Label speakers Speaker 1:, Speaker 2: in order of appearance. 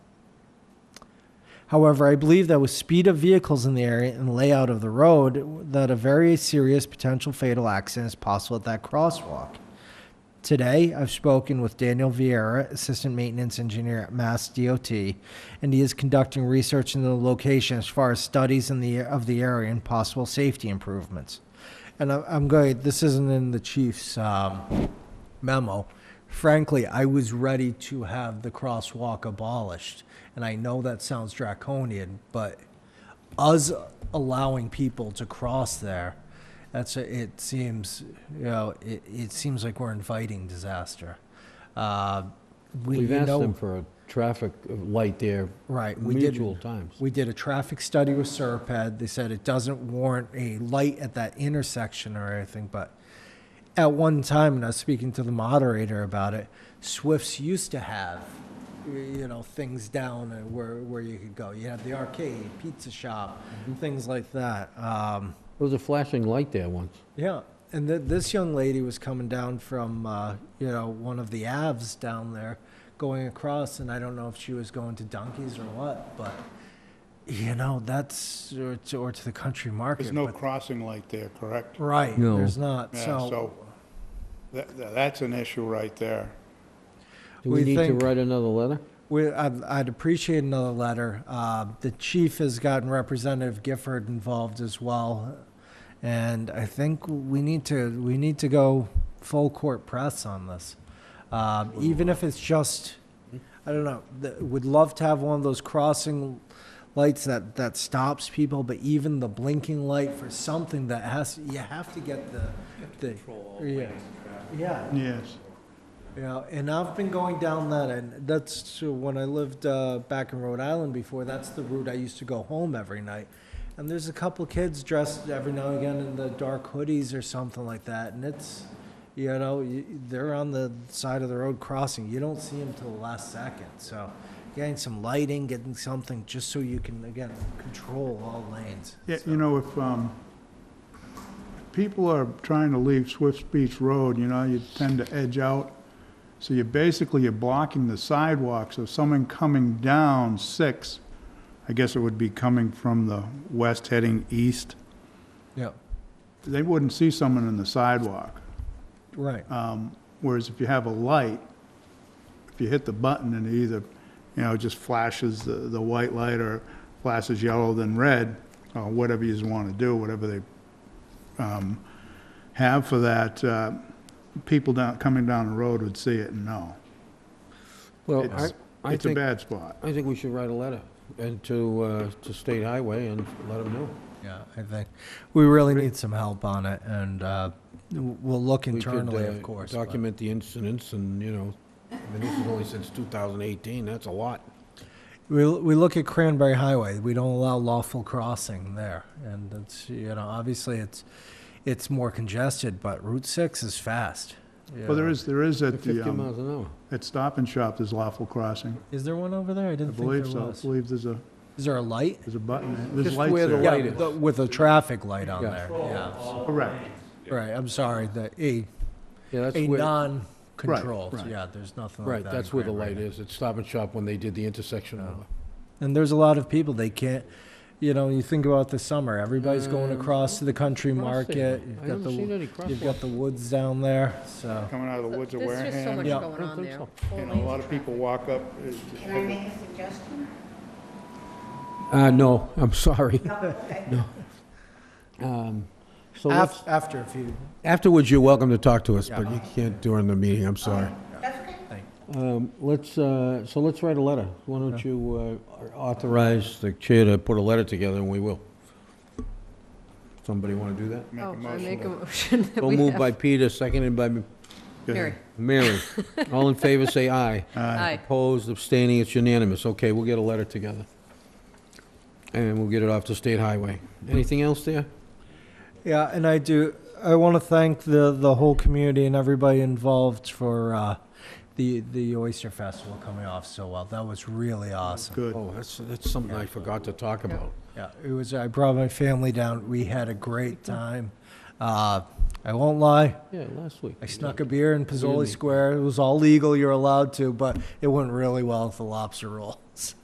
Speaker 1: However, I believe that with speed of vehicles in the area and layout of the road, that a very serious potential fatal accident is possible at that crosswalk. Today, I've spoken with Daniel Vieira, Assistant Maintenance Engineer at Mass DOT, and he is conducting research into the location as far as studies in the, of the area and possible safety improvements. And I- I'm going, this isn't in the chief's um, memo. Frankly, I was ready to have the crosswalk abolished, and I know that sounds draconian, but us allowing people to cross there, that's, a- it seems, you know, it, it seems like we're inviting disaster. Uh, we-
Speaker 2: We've
Speaker 1: you
Speaker 2: asked
Speaker 1: know-
Speaker 2: them for a traffic light there.
Speaker 1: Right, we did-
Speaker 2: Mutual times.
Speaker 1: We did a traffic study with Serped. They said it doesn't warrant a light at that intersection or anything, but at one time, and I was speaking to the moderator about it, Swifts used to have, y- you know, things down and where, where you could go. You had the arcade, pizza shop, things like that. Um,
Speaker 2: There was a flashing light there once.
Speaker 1: yeah, and th- this young lady was coming down from, uh, you know, one of the Avs down there, going across, and I don't know if she was going to Donkeys or what, but you know, that's or to, or to the country market.
Speaker 3: There's no
Speaker 1: but-
Speaker 3: crossing light there, correct?
Speaker 1: right.
Speaker 2: No.
Speaker 1: There's not.
Speaker 3: Yeah,
Speaker 1: so,
Speaker 3: So, that, that- that's an issue right there.
Speaker 2: Do we
Speaker 1: We
Speaker 2: need to
Speaker 1: think-
Speaker 2: write another letter?
Speaker 1: we, I'd, I'd appreciate another letter. Uh, the chief has gotten Representative Gifford involved as well, and I think we need to we need to go full court press on this, um, even if it's just I don't know. The, would love to have one of those crossing lights that that stops people, but even the blinking light for something that has you have to get the the yeah yeah
Speaker 3: Yes.
Speaker 1: you know, and I've been going down that, and that's so when I lived uh, back in Rhode Island before. That's the route I used to go home every night. And there's a couple kids dressed every now and again in the dark hoodies or something like that, and it's, you know, you, they're on the side of the road crossing. You don't see them till the last second. So, getting some lighting, getting something, just so you can again control all lanes.
Speaker 3: Yeah,
Speaker 1: So-
Speaker 3: you know, if, um, people are trying to leave Swift Beach Road, you know, you tend to edge out. So you're basically, you're blocking the sidewalk, so someone coming down six, I guess it would be coming from the west heading east,
Speaker 1: yeah,
Speaker 3: they wouldn't see someone in the sidewalk.
Speaker 1: right.
Speaker 3: Um, Whereas if you have a light, if you hit the button and it either, you know, just flashes the, the white light or flashes yellow then red, or whatever you just want to do, whatever they um, have for that, uh, people down, coming down the road would see it and know.
Speaker 2: Well, I,
Speaker 3: It's,
Speaker 2: I
Speaker 3: it's a
Speaker 2: think,
Speaker 3: bad spot.
Speaker 2: I think we should write a letter and to, uh, to State Highway and let them know.
Speaker 1: Yeah, I think we really need some help on it, and uh, w- we'll look
Speaker 2: We could,
Speaker 1: internally,
Speaker 2: uh,
Speaker 1: of course. but-
Speaker 2: Document the incidents and, you know, I mean, this is only since 2018, that's a lot.
Speaker 1: We, we look at Cranberry Highway. We don't allow lawful crossing there, and it's you know obviously it's it's more congested, but Route Six is fast.
Speaker 3: Well, there
Speaker 1: Yeah.
Speaker 3: is, there is at
Speaker 2: 50
Speaker 3: the, um,
Speaker 2: miles an hour.
Speaker 3: at Stop and Shop, there's lawful crossing.
Speaker 1: Is there one over there? I
Speaker 3: I
Speaker 1: didn't think
Speaker 3: believe
Speaker 1: there
Speaker 3: so.
Speaker 1: was.
Speaker 3: I believe there's a,
Speaker 1: Is there a light?
Speaker 3: there's a button, there's
Speaker 2: Just
Speaker 3: lights
Speaker 2: where the
Speaker 3: there.
Speaker 2: light-
Speaker 1: Yeah,
Speaker 2: is.
Speaker 1: the- with a traffic light on
Speaker 2: Yeah.
Speaker 1: there. Yeah,
Speaker 3: Correct.
Speaker 1: right. I'm sorry. The a
Speaker 2: Yeah, that's
Speaker 1: a
Speaker 2: where,
Speaker 1: non-controlled.
Speaker 3: right.
Speaker 1: Yeah, there's nothing
Speaker 2: right,
Speaker 1: like that. in
Speaker 2: that's where the
Speaker 1: Cranberry.
Speaker 2: light is. It's Stop and Shop when they did the intersection.
Speaker 1: Oh.
Speaker 2: over.
Speaker 1: And there's a lot of people they can't. You know, you think about the summer. Everybody's going
Speaker 2: Um,
Speaker 1: across to the country market.
Speaker 2: Crossing.
Speaker 1: You've
Speaker 2: I
Speaker 1: got
Speaker 2: haven't seen
Speaker 1: the
Speaker 2: any
Speaker 1: you've
Speaker 2: crosswalks.
Speaker 1: got the woods down there. So
Speaker 3: Coming out of the woods of
Speaker 4: There's just so
Speaker 3: Wareham.
Speaker 4: much
Speaker 1: Yeah.
Speaker 4: going
Speaker 2: I don't
Speaker 4: on
Speaker 2: think
Speaker 4: there.
Speaker 2: so.
Speaker 4: Four
Speaker 3: And a
Speaker 4: lanes
Speaker 3: lot of people walk up.
Speaker 5: Can I make a suggestion?
Speaker 2: Uh, no, I'm sorry.
Speaker 5: No, okay.
Speaker 2: Um, So let's-
Speaker 1: Af- after a few.
Speaker 2: afterwards, you're welcome to talk to us,
Speaker 1: Yeah.
Speaker 2: but you can't during the meeting, I'm sorry.
Speaker 5: That's okay.
Speaker 2: Um, Let's, uh, so let's write a letter. Why don't you uh, authorize the chair to put a letter together, and we will. Somebody want to do that?
Speaker 3: Make a
Speaker 4: Oh, I
Speaker 3: motion.
Speaker 4: make a motion that
Speaker 2: So
Speaker 4: we
Speaker 2: moved
Speaker 4: have.
Speaker 2: by Peter, seconded by
Speaker 3: Go ahead.
Speaker 4: Mary,
Speaker 2: Mary. All in favor, say aye.
Speaker 4: aye.
Speaker 2: Opposed, abstaining, it's unanimous. Okay, we'll get a letter together. And we'll get it off to State Highway. Anything else there?
Speaker 1: Yeah, and I do. I want to thank the the whole community and everybody involved for uh, the the Oyster Festival coming off so well. That was really awesome.
Speaker 3: Good.
Speaker 2: Oh, that's, that's something I forgot to talk about.
Speaker 1: Yeah, it was. I brought my family down. We had a great time. Uh, I won't lie.
Speaker 2: Yeah, last week.
Speaker 1: I snuck a beer in Pizzoli
Speaker 2: Really?
Speaker 1: Square. It was all legal. You're allowed to, but it went really well with the lobster rolls.